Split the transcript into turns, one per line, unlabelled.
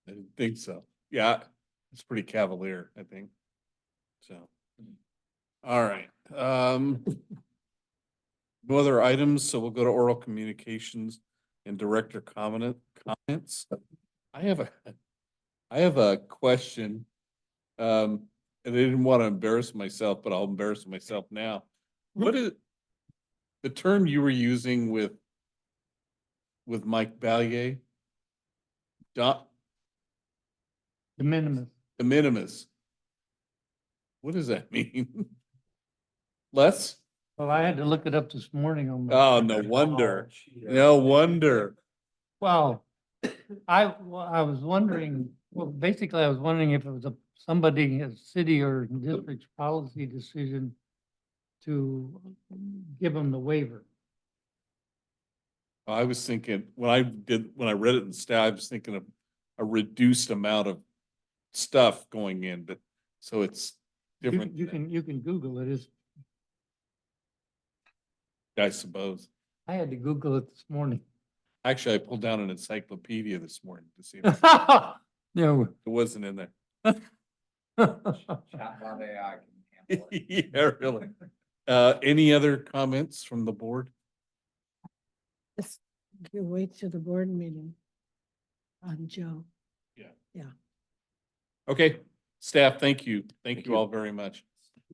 think so. Yeah, it's pretty cavalier, I think. So. All right, um. No other items, so we'll go to oral communications and director comment, comments. I have a, I have a question. Um, and I didn't want to embarrass myself, but I'll embarrass myself now. What is the term you were using with with Mike Ballier? Dot,
The minimum.
de minimis. What does that mean? Less?
Well, I had to look it up this morning on. my-
Oh, no wonder. No wonder.
Well, I, well, I was wondering, well, basically I was wondering if it was a, somebody, a city or district's policy decision to give them the waiver.
I was thinking, when I did, when I read it in staff, I was thinking of a reduced amount of stuff going in, but so it's
You
different,
can, you can, you can Google it. It's,
I suppose.
I had to Google it this morning.
Actually, I pulled down an encyclopedia this morning to see if it
No.
wasn't in there.
Chatbot AI can handle it.
Yeah, really. Uh, any other comments from the board?
Yes, you wait till the board meeting on Joe.
Okay, staff, thank you. Thank
Thank
you
you.
all very much.